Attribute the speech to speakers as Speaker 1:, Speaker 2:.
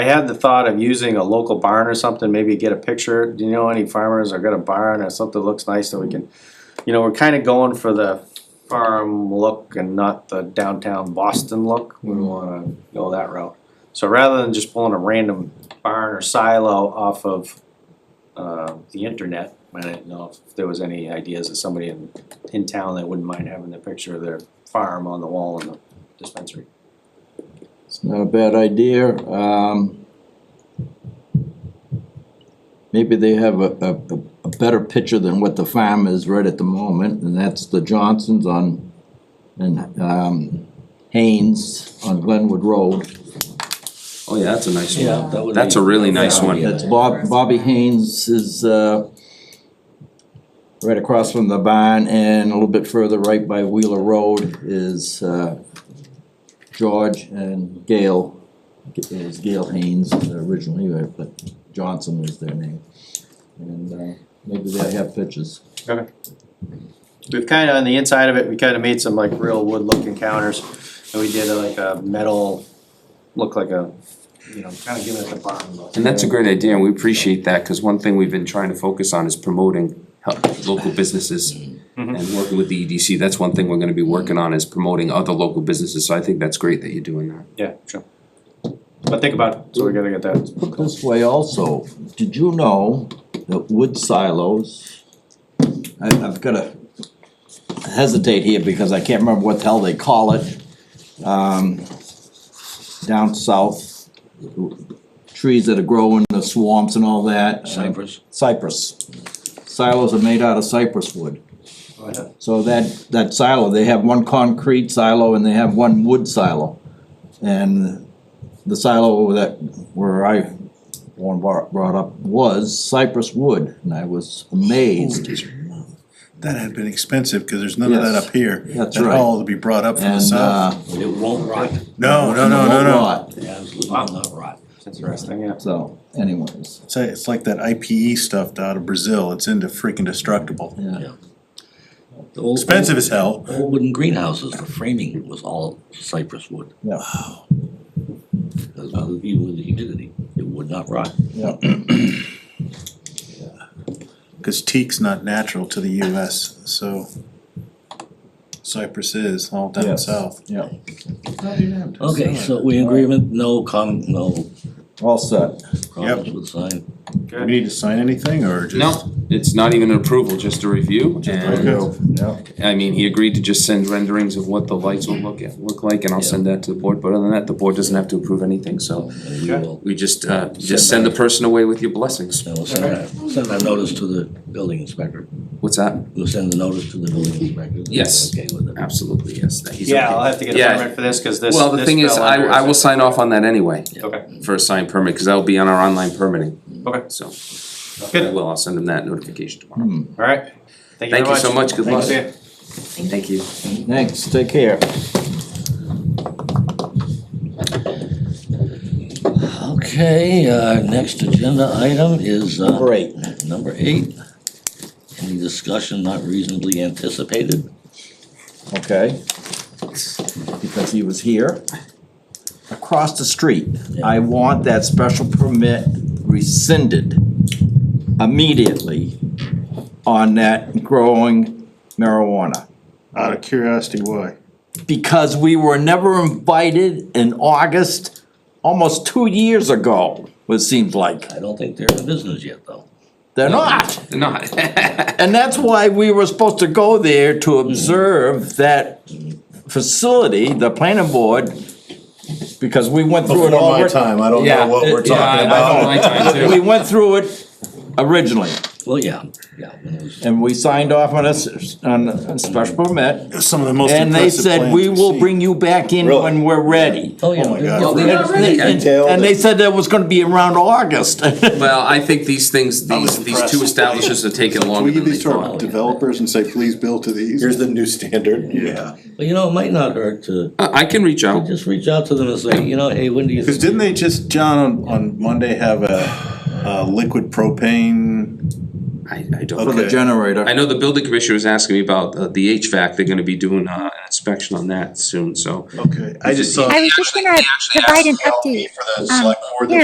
Speaker 1: I had the thought of using a local barn or something, maybe get a picture, do you know any farmers or got a barn or something that looks nice that we can, you know, we're kinda going for the farm look and not the downtown Boston look, we wanna go that route. So rather than just pulling a random barn or silo off of uh the internet, I didn't know if there was any ideas of somebody in in town that wouldn't mind having the picture of their farm on the wall in the dispensary.
Speaker 2: It's not a bad idea. Um, maybe they have a, a, a- a better picture than what the farm is right at the moment, and that's the Johnsons on, and, um, Haynes on Glenwood Road.
Speaker 3: Oh, yeah, that's a nice one.
Speaker 4: that would
Speaker 3: That's a really nice one.
Speaker 2: That's Bob, Bobby Haynes is, uh, right across from the barn, and a little bit further right by Wheeler Road is, uh, George and Gail. It was Gail Haynes originally, but Johnson was their name. And, uh, maybe they have pictures.
Speaker 1: We've kinda, on the inside of it, we kinda made some like real wood looking counters, and we did uh, like a metal, look like a, you know, kinda giving it the barn look.
Speaker 3: And that's a great idea, and we appreciate that, cause one thing we've been trying to focus on is promoting help, local businesses and working with the EDC, that's one thing we're gonna be working on is promoting other local businesses, so I think that's great that you're doing that.
Speaker 1: Yeah, sure. But think about, it, so we gotta get that,
Speaker 2: Put this way also, did you know that wood silos, I, I've gotta hesitate here because I can't remember what the hell they call it. Um, down south, trees that grow in the swamps and all that.
Speaker 4: Cypress.
Speaker 2: Cypress. Silos are made out of cypress wood. So that, that silo, they have one concrete silo and they have one wood silo. And the silo that, where I, one bar- brought up was cypress wood, and I was amazed.
Speaker 5: That had been expensive, cause there's none of that
Speaker 2: Yes,
Speaker 5: up here.
Speaker 2: that's
Speaker 5: That
Speaker 2: right.
Speaker 5: all to be brought up from the
Speaker 2: And,
Speaker 5: south.
Speaker 2: uh.
Speaker 4: It won't rot,
Speaker 5: No, no, no, no, no.
Speaker 4: yeah, absolutely not rot.
Speaker 1: that's interesting, yeah.
Speaker 2: So anyways,
Speaker 5: It's, it's like that IPE stuff out of Brazil, it's into freaking destructible.
Speaker 2: yeah.
Speaker 4: The old-
Speaker 5: Expensive as hell.
Speaker 4: Old wooden greenhouses, the framing was all cypress wood.
Speaker 2: Yeah.
Speaker 4: Because of the view and the humidity, it would not rot.
Speaker 5: Cause teak's not natural to the US, so cypress is all down
Speaker 2: Yes.
Speaker 5: south.
Speaker 2: Yeah,
Speaker 4: Okay, so we in agreement, no com, no
Speaker 2: all set.
Speaker 4: problems with the sign.
Speaker 5: Do we need to sign anything or just?
Speaker 3: No, it's not even an approval, just a review, and,
Speaker 5: Okay.
Speaker 2: Yeah.
Speaker 3: I mean, he agreed to just send renderings of what the lights will look, at- look like, and I'll send that to the board, but other than that, the board doesn't have to approve anything, so
Speaker 4: And we will,
Speaker 3: we just, uh, just send the person away with your blessings.
Speaker 4: and we'll send that, send that notice to the building inspector.
Speaker 3: What's that?
Speaker 4: We'll send the notice to the building inspector.
Speaker 3: Yes.
Speaker 4: Okay with it.
Speaker 3: Absolutely, yes, that he's okay.
Speaker 1: Yeah, I'll have to get a
Speaker 3: Yeah.
Speaker 1: permit for this, cause this,
Speaker 3: Well, the
Speaker 1: this
Speaker 3: thing is,
Speaker 1: fell
Speaker 3: I,
Speaker 1: under
Speaker 3: I
Speaker 1: it.
Speaker 3: will sign off on that anyway
Speaker 1: Okay,
Speaker 3: for a signed permit, cause that'll be on our online permitting,
Speaker 1: okay,
Speaker 3: so.
Speaker 1: Good.
Speaker 3: I will, I'll send him that notification tomorrow.
Speaker 1: alright, thank you very
Speaker 3: Thank you
Speaker 1: much.
Speaker 3: so much, good
Speaker 1: Thanks,
Speaker 3: luck.
Speaker 1: see ya.
Speaker 3: Thank you.
Speaker 2: Thanks, take care.
Speaker 4: Okay, uh, next agenda item is, uh.
Speaker 2: Number eight.
Speaker 4: Number eight, any discussion not reasonably anticipated?
Speaker 2: okay? Because he was here. Across the street, I want that special permit rescinded immediately on that growing marijuana.
Speaker 5: Out of curiosity, why?
Speaker 2: Because we were never invited in August, almost two years ago, it seems like.
Speaker 4: I don't think they're in business yet, though.
Speaker 2: They're not.
Speaker 3: Not,
Speaker 2: And that's why we were supposed to go there to observe that facility, the planning board, because we went through it
Speaker 5: Before
Speaker 2: all.
Speaker 5: my time, I don't know
Speaker 2: Yeah,
Speaker 5: what we're
Speaker 2: it- yeah,
Speaker 5: talking
Speaker 3: I don't
Speaker 5: about.
Speaker 3: like time
Speaker 2: We
Speaker 3: too.
Speaker 2: went through it originally,
Speaker 4: Well, yeah, yeah. when it was-
Speaker 2: and we signed off on a, s- on a special permit,
Speaker 5: Some of the most
Speaker 2: and they
Speaker 5: impressive
Speaker 2: said,
Speaker 5: plans
Speaker 2: we
Speaker 5: we've
Speaker 2: will
Speaker 5: seen."
Speaker 2: bring you back in when we're ready.
Speaker 4: Oh, yeah.
Speaker 5: Oh my
Speaker 4: they-
Speaker 5: God.
Speaker 4: well, they-
Speaker 3: Not really.
Speaker 2: And and they said that was gonna be around August.
Speaker 3: Well, I think these things,
Speaker 5: was
Speaker 3: these, these two
Speaker 5: impressed.
Speaker 3: establishments are taking
Speaker 6: Can we
Speaker 3: longer
Speaker 6: give
Speaker 3: than they
Speaker 6: these to
Speaker 3: thought.
Speaker 6: our developers and say, please build to these? Here's the new standard. Yeah.
Speaker 4: But you know, it might not hurt to
Speaker 3: Uh, I, I can reach out,
Speaker 4: just reach out to them and say, you know, hey, when do you?
Speaker 5: Cause didn't they just, John, on, on Monday have a, a liquid propane?
Speaker 3: I, I don't,
Speaker 5: Okay.
Speaker 2: The generator.
Speaker 3: I know the building commissioner was asking me about uh, the HVAC, they're gonna be doing, uh, an inspection on that soon, so.
Speaker 5: Okay, I just saw.
Speaker 7: I was just gonna provide an update. Um,